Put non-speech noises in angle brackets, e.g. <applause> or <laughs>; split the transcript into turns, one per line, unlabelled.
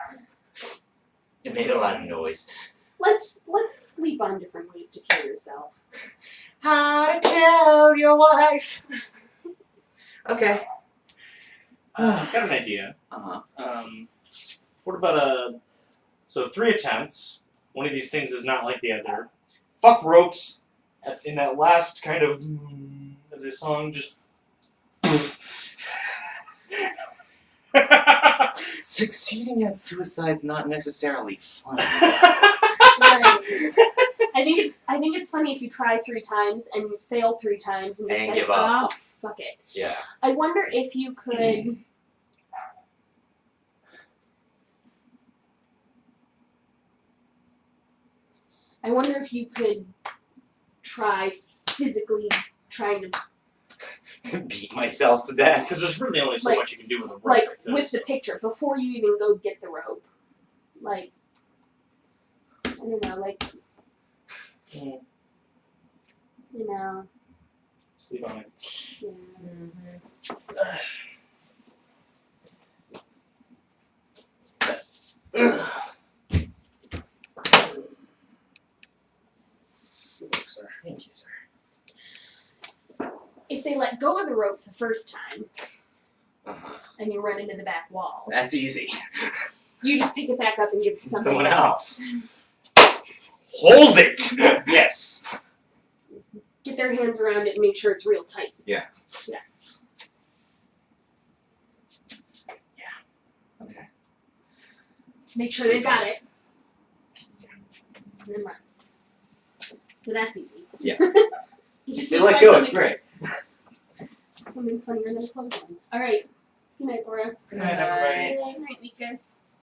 It made a lot of noise.
Let's let's sleep on different ways to kill yourself. <laughs>
How to kill your wife. okay.
Uh, I've got an idea.
Uh-huh.
Um, what about a? So three attempts. One of these things is not like the other. Fuck ropes. At, in that last kind of, mm, of the song, just.
<sighs>
<laughs>
Succeeding at suicide's not necessarily fun.
Right. I think it's I think it's funny if you try three times and you fail three times and you
And
say,
give up.
"Oh, fuck it."
yeah. <laughs>
I wonder if
<clears throat>
you could. I wonder if you could try physically trying to
Beat myself to death.
Because there's really only so
Like-
much you can do with a rope.
like
too,
with
so.
the picture before you even go get the rope, like I don't know, like
Mm,
you know,
sleep on it.
yeah.
Ugh.
Good work, sir.
Thank you, sir.
if they let go of the rope the first time
Uh-huh.
and you run into the back wall,
That's easy.
you just pick it back up and give it to somebody
Someone else. Hold <laughs> it.
Yes.
get their hands around it and make sure it's real tight.
Yeah.
Yeah.
Yeah. Okay.
Make sure they've got it. And then run. So that's easy. <laughs>
Yeah.
Just
They
like
let go. It's
something-
great.
Something funnier than clothesline. All right. Good night, Laura.
Good night, everybody.
Good night, Lucas.